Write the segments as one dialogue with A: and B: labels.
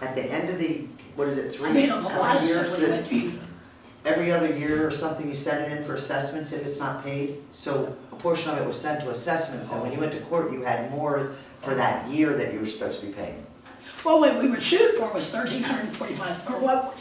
A: at the end of the, what is it, three,
B: I made up a
A: how
B: lot
A: many
B: of
A: years?
B: stuff
A: that-
B: with me.
A: Every other year or something, you send it in for assessments if it's not paid, so a portion of it was sent to assessments, and when you went to court, you had more for that year that you were supposed to be paying.
B: Well, what we were sued for was thirteen hundred and forty-five, or what,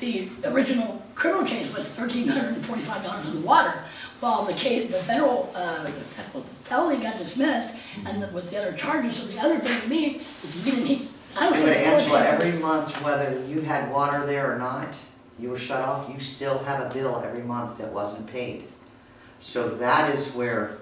B: the original criminal case was thirteen hundred and forty-five dollars in the water, while the case, the federal, uh, the federal felony got dismissed, and the- with the other charges, so the other thing to me, is we didn't, need- I
A: But
B: was.
A: Angela, every month, whether you had water there or not, you were shut off, you still have a bill every month that wasn't paid. So that is where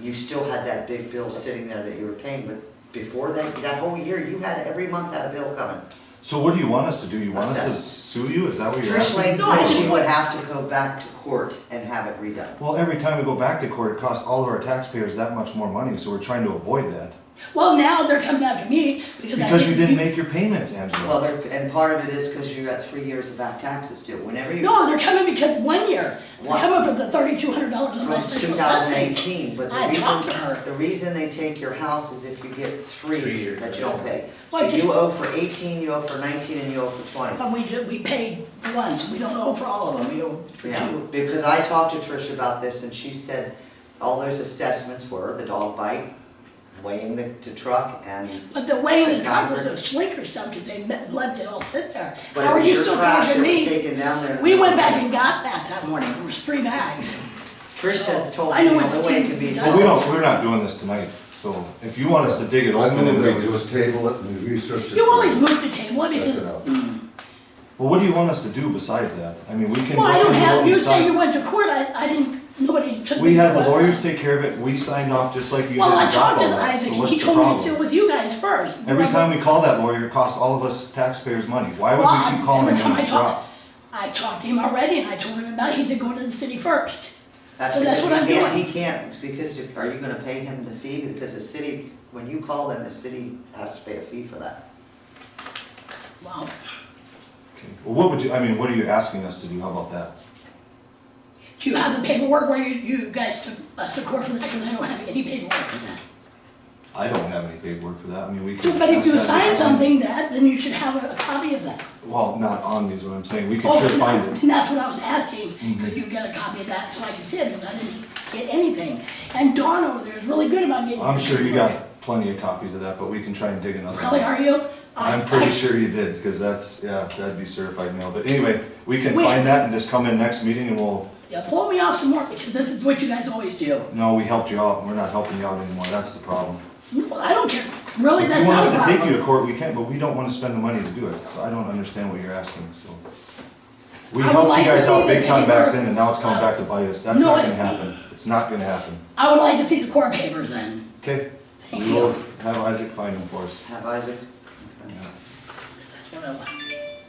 A: you still had that big bill sitting there that you were paying, but before that, that whole year, you had every month that bill coming.
C: So what do you want us to do? You want us to
A: Assess.
C: sue you? Is
D: Oh,
C: that what you're
A: Trish
C: asking?
A: Lane
B: No, I
A: said she
B: just
A: would
B: want-
A: have to go back to court and have it redone.
C: Well, every time we go back to court, it costs all of our taxpayers that much more money, so we're trying to avoid that.
B: Well, now they're coming after me, because I.
C: Because you didn't
B: do-
C: make your payments,
A: Well,
C: Angela.
A: there, and part of it is because you got three years of back taxes due, whenever you,
B: No, they're coming because one year, they're
A: Why?
B: coming for the thirty-two hundred dollars in
A: from
B: my
A: two
B: special
A: thousand
B: assessment.
A: eighteen, but
B: I
A: the
B: talked to her.
A: reason, the reason they take your house is if you get
D: Three
A: three
D: years,
A: that you don't
D: yeah.
A: pay. So
B: Well, just-
A: you owe for eighteen, you owe for nineteen, and you owe for twenty.
B: But we did, we paid once, we don't owe for all of them, we owe for
A: Yeah,
B: two.
A: because I talked to Trish about this and she said all those assessments were the dog bite, weighing the, the truck and
B: But the way
A: The
B: the truck was
A: driver-
B: a slinker stuff, because they met- let it all sit there.
A: But it
B: How are
A: was
B: you
A: your
B: still
A: trash
B: charging
A: that was
B: me?
A: taken down there.
B: We went back and got that that morning, there was three bags.
A: Trish said, told
B: Oh, I
A: me,
B: know
A: the
B: it's
A: only way it
B: changed.
A: could be.
C: Well, we don't, we're not doing this tonight, so if you want us to dig it
E: I
C: open.
E: move
C: then
E: that
C: we-
E: we just table it and we research it.
B: You always move the table, I mean,
E: That's
B: just,
E: enough.
C: Well, what do you want us to do besides that? I mean, we can.
B: well, I
C: look
B: don't
C: into what
B: have,
C: we
B: you say
C: signed.
B: you went to court, I, I didn't, nobody took me.
C: We had
B: to
C: the
B: court.
C: lawyers take care of it, we signed off just like you did
B: Well, I
C: with
B: talked to
C: Doppo, so
B: Isaac,
C: what's
B: he
C: the
B: told me to deal
C: problem?
B: with you guys first.
C: Every
B: Remember?
C: time we call that lawyer, it costs all of us taxpayers money, why would
B: Well,
C: we keep
B: I-
C: calling
B: every
C: him
B: time I
C: when he's dropped?
B: talked, I talked to him already, and I told him about it, he said, go to the city first.
A: That's
B: So that's
A: because
B: what
A: he
B: I'm
A: can't,
B: doing.
A: he can't, because if- are you gonna pay him the fee? Because the city, when you call them, the city has to pay a fee for that.
B: Well,
C: Okay. Well, what would you, I mean, what are you asking us to do, how about that?
B: do you have the paperwork where you, you guys took us to court for that, because I don't have any paperwork for that.
C: I don't have any paperwork for that, I mean, we can.
B: But if
C: ask
B: you
C: that
B: sign
C: person.
B: something that, then you should have a a copy of that.
C: Well, not on these, what I'm saying, we can
B: Oh,
C: sure
B: and
C: find
B: I-
C: it. Mm-hmm.
B: And that's what I was asking, could you get a copy of that so I could see it, because I didn't get anything. And Dawn over there is really good about getting.
C: I'm sure you
B: paperwork.
C: got plenty of copies of that, but we can try and dig another one.
B: Really, are you? I-
C: I'm pretty
B: I-
C: sure you did, because that's, yeah, that'd be certified mail, but anyway, we can
B: We-
C: find that and just come in next meeting and we'll,
B: Yeah, pull me off some more, because this is what you guys always do.
C: no, we helped you out, we're not helping you out anymore, that's the problem.
B: No, I don't care, really,
C: If
B: that's
C: you want
B: not a
C: us to
B: problem.
C: take you to court, we can, but we don't wanna spend the money to do it, so I don't understand what you're asking, so. We
B: I would
C: helped you
B: like to
C: guys
B: see the
C: out big time back
B: paper.
C: then, and now it's coming back to bite us, that's
B: uh, No,
C: not
B: I-
C: gonna happen, it's not gonna happen,
B: I would like to see the court papers then.
C: okay?
B: Thank
C: We will
B: you.
C: have Isaac find them for us,
A: Have Isaac? uh,
B: That's what I want.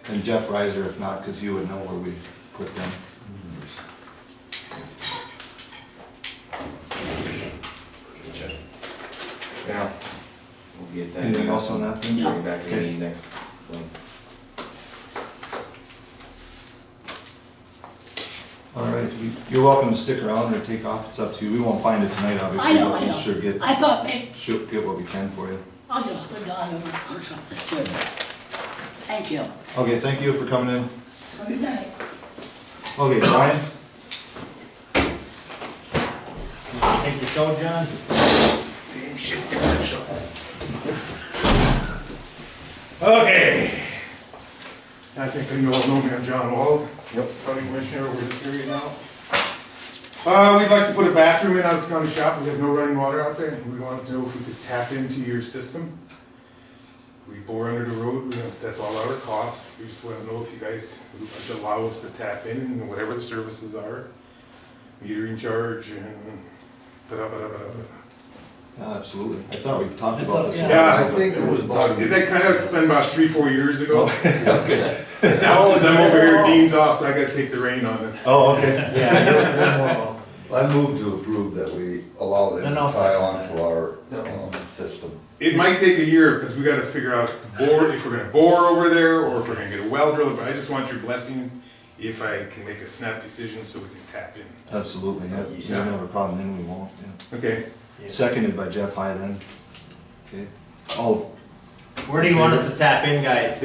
C: and Jeff Reiser if not, cause he would know where we put them.
D: Yeah. We'll get that.
C: Anything else on that?
D: Bring
C: thing?
D: it back to
C: Okay.
D: the next one.
C: All right, we- you're welcome to stick around or take off, it's up to you. We won't find it tonight,
B: I
C: obviously,
B: know,
C: but
B: I
C: we'll sure
B: know.
C: get,
B: I thought, maybe,
C: sure get what we can for you.
B: I'll get off the gun over the contract, that's good. Thank you.
C: Okay, thank you for coming in.
B: Have a good night.
C: Okay, Brian?
F: Take the show, John?
G: Okay. I think you all know me, I'm John Wall. Yep. County Commissioner over this area now. Uh, we'd like to put a bathroom in out at the county shop, we have no running water out there, we wanted to know if we could tap into your system. We bore under the road, We don't- that's all our cost, we just wanna know if you guys would allow us to tap in, and whatever the services are. Metering charge and da-da-da-da-da.
C: Yeah, Absolutely. I thought we talked about this.
G: Yeah,
E: I think it was
G: Uh, Did that kind of spend about three, four years ago?
C: Okay.
G: Now, since I'm over here, Dean's off, so I gotta take the reign on it.
C: Oh, okay.
F: Yeah, you're one more. vote.
E: I move to approve that we allow them
F: And
E: to
F: I'll
E: tie
F: second
E: on to our
D: No.
E: um, system.
G: It might take a year, because we gotta figure out bore, if we're gonna bore over there, or if we're gonna get a well driller, but I just want your blessings if I can make a snap decision so we can tap in.
C: Absolutely, yeah. We don't have a problem, then we won't, yeah.
G: Okay,
C: Seconded by Jeff High then. Okay. All,
F: Where do you want us to tap in, guys?